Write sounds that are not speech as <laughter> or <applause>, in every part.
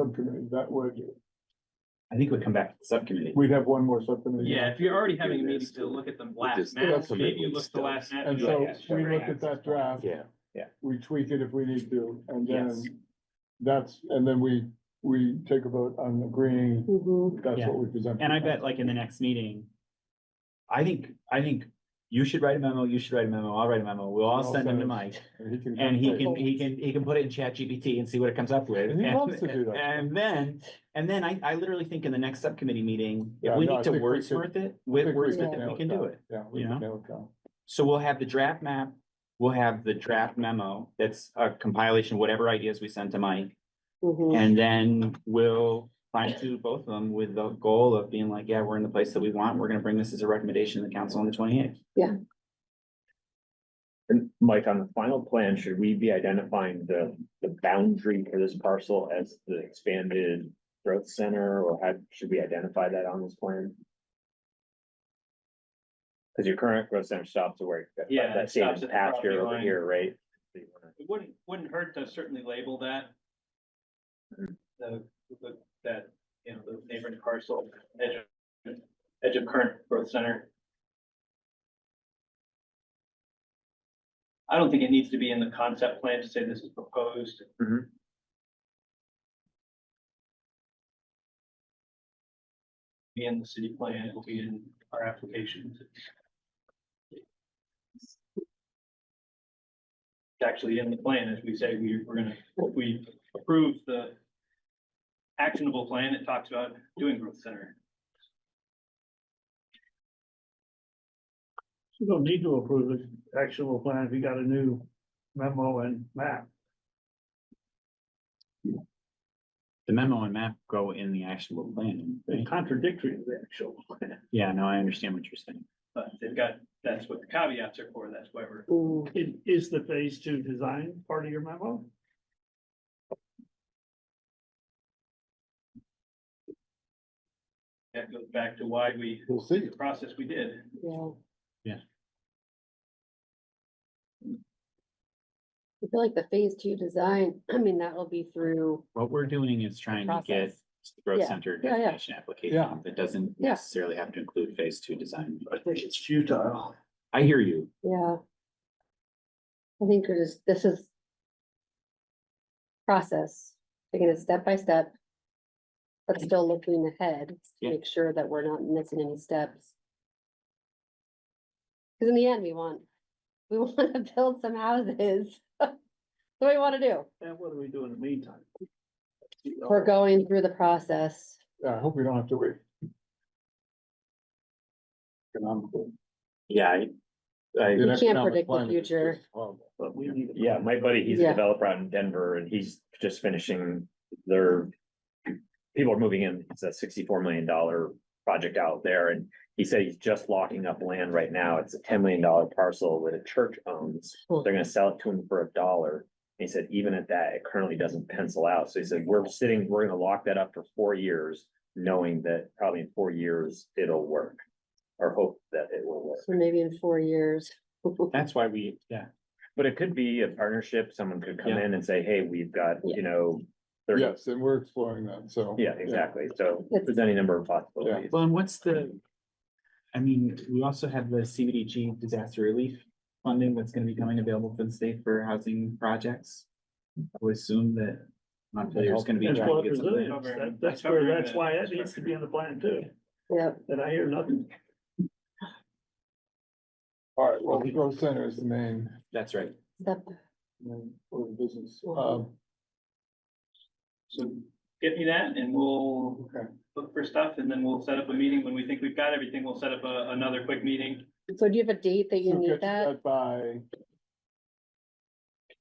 subcommittee, that would, I think we come back to the subcommittee. we'd have one more subcommittee. Yeah, if you're already having a Do meeting this. to look at the just- last that's map, what maybe it you look at the does. last map. And you're so like, yeah, we sure, look yeah. at that draft, Yeah, we tweak it if we need to, and Yes. then that's, and then we, we take a vote on agreeing, Mhm. that's Yeah. what we present. And I bet like in the next meeting. I think, I think you should write a memo, you should write a memo, I'll write a memo, we'll all I'll send them to send it. Mike. And he can. And he can, he can, he can put it in chat GPT and see what it comes up with. And he loves to do that. And then, and then I, I literally think in the next subcommittee meeting, if Yeah, we no, I need to think we could- wordsmith it, I think with we can wordsmith it, nail we can do down. it. Yeah. we you can know? nail it down. So we'll have the draft map, we'll have the draft memo, that's a compilation, of whatever ideas we send to Mike. Mhm. And then we'll fine tune both of them with the goal of being like, yeah, we're in the place that we want. We're gonna bring this as a recommendation to the council on the twenty eighth. and Mike, on the final plan, should we be identifying the, the boundary for this parcel as the expanded growth center, or how, should we identify that on this plan? Cause your current growth center stops to where, that- Yeah, it that stops same at the property pasture over line. here, right? It wouldn't, wouldn't hurt to certainly label that. The, the, that, you know, the neighboring parcel, edge of, edge of current growth center. I don't think it needs to be in the concept plan to say this is proposed. Mhm. Be in the city plan, it'll be in our applications. It's actually in the plan, as we say, we, we're gonna, if we approve the actionable plan, it talks about doing growth center. You don't need to approve the actual plan if you got a new memo and map. The memo and map go in the actual plan. It's right? contradictory to the actual plan. Yeah, no, I understand what you're saying. But they've got, that's what the caveats are for, that's why we're, Mm. Is, is the phase two design part of your memo? that goes back to why we, We'll see. the process we did. Yeah. Yeah. I feel like the phase two design, <clears throat> I mean, that'll be through, What we're doing is trying to get Process. growth Yeah. center Yeah, yeah. definition Yeah. application that doesn't Yeah. necessarily have to include phase two design. I think it's futile. I hear you. yeah. I think we're just, this is process, taking it step by step. But still looking ahead to Yeah. make sure that we're not missing any steps. Cause in the end, we want, we <laughs> wanna build some houses. <laughs> That's What do we wanna do? And what do we do in the meantime? We're going through the process. Yeah, I hope we don't have to wait. Yeah, I- I, The can't economic predict the climate is future. just horrible. But we need. Yeah, my buddy, he's a Yeah. developer out in Denver and he's just finishing their. People are moving in, it's a sixty-four million dollar project out there and he said he's just locking up land right now. It's a ten million dollar parcel that a church owns. Hmm. They're gonna sell it to him for a dollar. He said even at that, it currently doesn't pencil out. So he said, we're sitting, we're gonna lock that up for four years, knowing that probably in four years it'll work. Or hope that it will work. So maybe in four years. that's why we, yeah, But it could be a partnership, someone could come Yeah. in and say, hey, we've got, you know. 30 Yes, and we're exploring that, so. Yeah, exactly, so It's- there's any number of possibilities. Well, and what's the, I mean, we also have the CBDG disaster relief funding that's gonna be coming available for the state for housing projects. I would assume that Montpelier is gonna be As trying well to get as something. resilience, that- that's where, that's why that needs to be in the plan too, Yeah, and I hear nothing. <laughs> All right, well, the growth center is the main, That's right. that, main order of business. Um, So get me that and we'll Um, okay. look for stuff and then we'll set up a meeting. When we think we've got everything, we'll set up a, another quick meeting. so do you have a date that you So need get that? By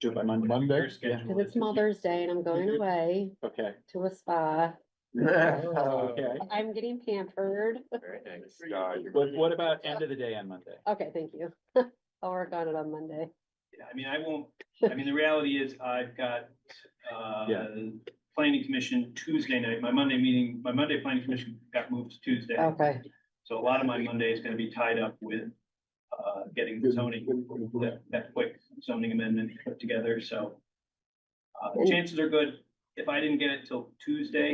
Do it by Monday. Monday. Your schedule Cause is- it's Mother's Day and I'm going away Okay. to a spa. Uh, Okay. I'm getting pampered. Very nice. What, what about end of the day on Monday? Okay, thank you. <laughs> I'll work on it on Monday. Yeah, I mean, I won't, I mean, the reality is I've got, uh, Yeah. planning commission Tuesday night. My Monday meeting, my Monday planning commission got moved to Tuesday. Okay, So a lot of my Monday is gonna be tied up with, uh, getting the zoning, that, that quick zoning amendment put together, so. Uh, the chances are good, if I didn't get it till Tuesday,